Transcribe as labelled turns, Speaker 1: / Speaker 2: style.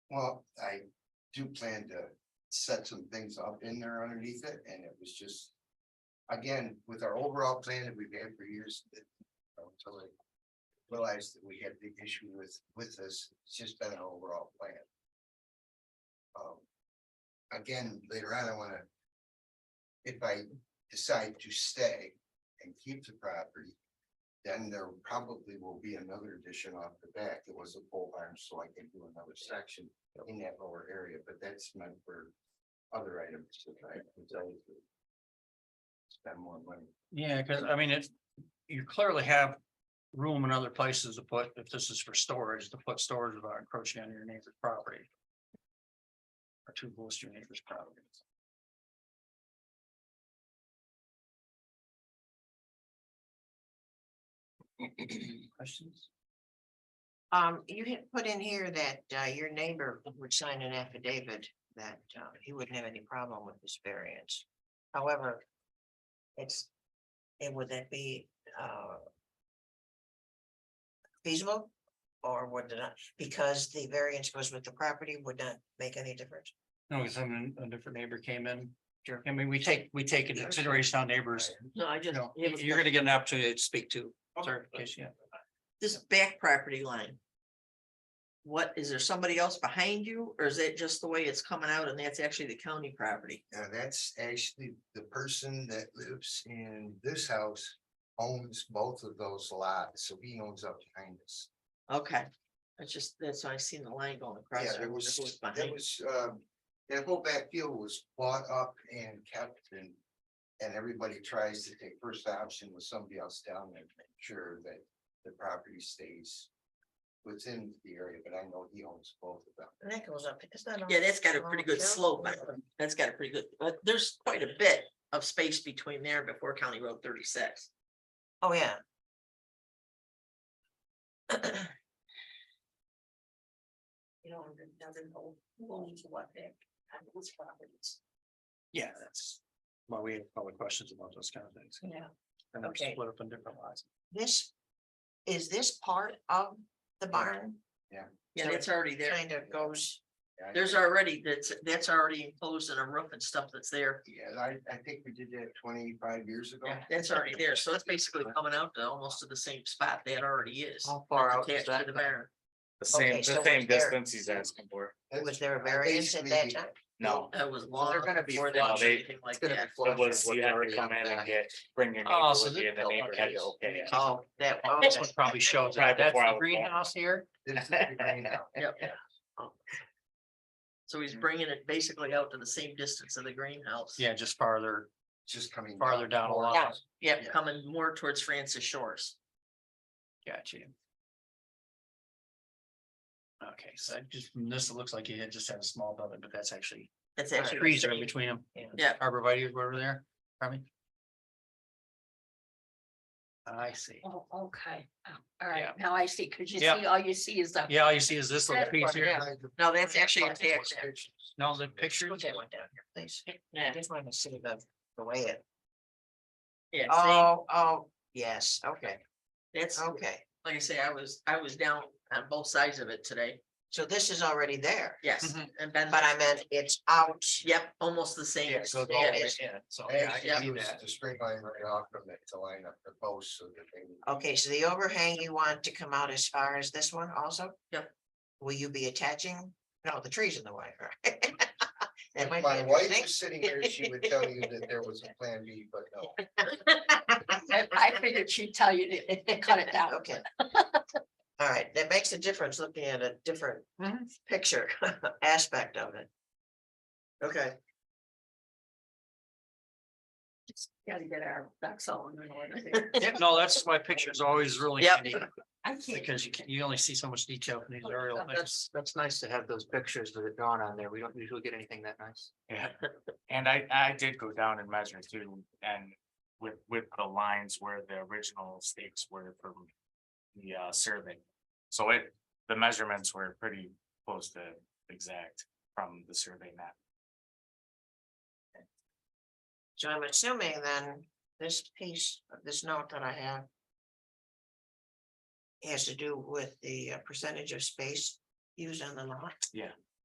Speaker 1: Well, I do plan to set some things up in there underneath it, and it was just. Again, with our overall plan that we've had for years, that, uh, until I realized that we had the issue with, with this, it's just been an overall plan. Um, again, later on, I wanna. If I decide to stay and keep the property. Then there probably will be another addition off the back. It was a pole barn, so I can do another section in that lower area, but that's meant for other items to try and tell you to Spend more money.
Speaker 2: Yeah, cause I mean, it's, you clearly have room in other places to put, if this is for storage, to put storage without encroaching on your neighbor's property. Or too close to your neighbor's property. Questions?
Speaker 3: Um, you had put in here that uh your neighbor would sign an affidavit that uh he wouldn't have any problem with this variance. However. It's, and would that be uh. Feasible? Or would it not, because the variance was with the property would not make any difference?
Speaker 2: No, because I'm, a different neighbor came in. Sure. I mean, we take, we take into consideration how neighbors,
Speaker 4: No, I
Speaker 2: you
Speaker 4: just,
Speaker 2: know,
Speaker 4: it was
Speaker 2: you're
Speaker 4: the-
Speaker 2: gonna get an opportunity to speak to. Clarification, yeah.
Speaker 4: this back property line. What, is there somebody else behind you or is that just the way it's coming out and that's actually the county property?
Speaker 1: Now, that's actually the person that lives in this house owns both of those lots, so he owns up behind us.
Speaker 4: Okay, that's just, that's why I seen the line going across.
Speaker 1: Yeah,
Speaker 4: there. I
Speaker 1: it
Speaker 4: wondered
Speaker 1: was,
Speaker 4: who was
Speaker 1: it
Speaker 4: behind.
Speaker 1: was, um, that whole backfield was bought up and kept and. And everybody tries to take first option with somebody else down there, to make sure that the property stays. Within the area, but I know he owns both of them.
Speaker 3: And that goes up, it's not. on-
Speaker 4: Yeah, that's got a
Speaker 3: on
Speaker 4: pretty good
Speaker 3: Carroll.
Speaker 4: slope. That's got a pretty good, but there's quite a bit of space between there and before County Road thirty-six.
Speaker 3: Oh, yeah. You know, and doesn't know who owns what back on whose properties.
Speaker 2: Yeah, that's why we have probably questions about those kind of things.
Speaker 3: Yeah.
Speaker 2: And they're
Speaker 3: Okay.
Speaker 2: split up in different lots.
Speaker 3: This, is this part of the barn?
Speaker 4: Yeah,
Speaker 3: So
Speaker 4: that's already there.
Speaker 3: Kind of goes,
Speaker 1: Yeah, I-
Speaker 4: There's already, that's, that's already enclosed in a roof and stuff that's there.
Speaker 1: Yeah, I, I think we did that twenty-five years ago.
Speaker 4: That's already there. So it's basically coming out to almost to the same spot that already is.
Speaker 3: how far out is
Speaker 4: Attached to
Speaker 3: that?
Speaker 4: the barn.
Speaker 5: The
Speaker 3: Okay,
Speaker 5: same, the
Speaker 3: so was there-
Speaker 5: same distance he's asking for.
Speaker 1: That's-
Speaker 3: Was there a
Speaker 1: I
Speaker 3: variance at that
Speaker 1: basically-
Speaker 3: time?
Speaker 5: No,
Speaker 4: That was long.
Speaker 5: They're gonna be
Speaker 4: before there was
Speaker 5: flooded.
Speaker 4: Anything like
Speaker 5: gonna
Speaker 4: that.
Speaker 5: it was, you have to come in and get, bring your neighbor
Speaker 2: Oh, so
Speaker 5: with you
Speaker 2: this-
Speaker 5: and the
Speaker 2: oh,
Speaker 5: neighbor
Speaker 2: okay.
Speaker 5: had to okay it.
Speaker 3: Oh, that, oh,
Speaker 2: This one probably shows that.
Speaker 5: Right
Speaker 2: That's
Speaker 5: before I
Speaker 2: the
Speaker 5: was born.
Speaker 2: greenhouse here.
Speaker 1: This is the greenhouse.
Speaker 4: So he's bringing it basically out to the same distance of the greenhouse.
Speaker 2: Yeah, just farther,
Speaker 1: Just coming.
Speaker 2: farther down a
Speaker 1: more.
Speaker 2: lot.
Speaker 4: Yeah,
Speaker 1: Yeah.
Speaker 4: coming more towards Francis Shores.
Speaker 2: Got you. Okay, so I just, from this, it looks like you had just had a small building, but that's actually
Speaker 4: That's
Speaker 3: Right.
Speaker 4: actually. the
Speaker 2: trees are in
Speaker 4: same-
Speaker 2: between them.
Speaker 3: Yeah.
Speaker 4: Yeah.
Speaker 2: Arborvitae's were over there, probably. I see.
Speaker 6: Oh, okay. Oh, All right,
Speaker 2: Yeah.
Speaker 6: now I see, because you
Speaker 2: Yeah.
Speaker 6: see, all you see is the.
Speaker 2: Yeah, all you see is this little
Speaker 6: That
Speaker 2: piece here.
Speaker 4: No, that's actually
Speaker 2: Yeah.
Speaker 4: attached.
Speaker 2: No, the picture.
Speaker 3: Put that one down here, please. I
Speaker 4: Yeah,
Speaker 3: just wanted to see the, the way it.
Speaker 4: yeah, same.
Speaker 3: Oh, oh, yes, okay,
Speaker 4: That's,
Speaker 6: oh.
Speaker 3: okay.
Speaker 4: like I say, I was, I was down on both sides of it today.
Speaker 3: So this is already there,
Speaker 4: Yes,
Speaker 6: Mm-hmm.
Speaker 2: Mhm.
Speaker 4: and Ben,
Speaker 3: but I meant it's out.
Speaker 4: yep, almost the same.
Speaker 2: Yeah, so.
Speaker 4: Yeah,
Speaker 3: it's-
Speaker 2: So. yeah, I
Speaker 1: Actually,
Speaker 2: can see
Speaker 1: it was
Speaker 2: that.
Speaker 1: the straight line right off from it to line up the posts so that they would
Speaker 3: Okay, so the overhang you want to come out as far as this one also?
Speaker 4: Yep.
Speaker 3: Will you be attaching? No, the tree's in the way, right? That
Speaker 1: If
Speaker 3: might
Speaker 1: my
Speaker 3: be
Speaker 1: wife
Speaker 3: interesting.
Speaker 1: was sitting here, she would tell you that there was a plan B, but no.
Speaker 6: I I figured she'd tell you to cut it down.
Speaker 3: Okay. All right, that makes a difference looking at a different
Speaker 4: Mm-hmm.
Speaker 3: picture aspect of it. Okay,
Speaker 6: Just Gotta get our ducks all in order.
Speaker 2: Yeah, No, that's why pictures are always really
Speaker 4: Yep.
Speaker 2: handy.
Speaker 6: I can't.
Speaker 2: Because you can, you only see so much detail from these aerial pictures.
Speaker 7: That's, that's nice to have those pictures that are drawn on there. We don't usually get anything that nice.
Speaker 5: And I, I did go down and measure too, and with, with the lines where the original stakes were from the uh, survey. So it, the measurements were pretty close to exact from the survey map.
Speaker 3: so I'm assuming then this piece, of this note that I have. Has to do with the uh, percentage of space used on the lot?
Speaker 5: Yeah.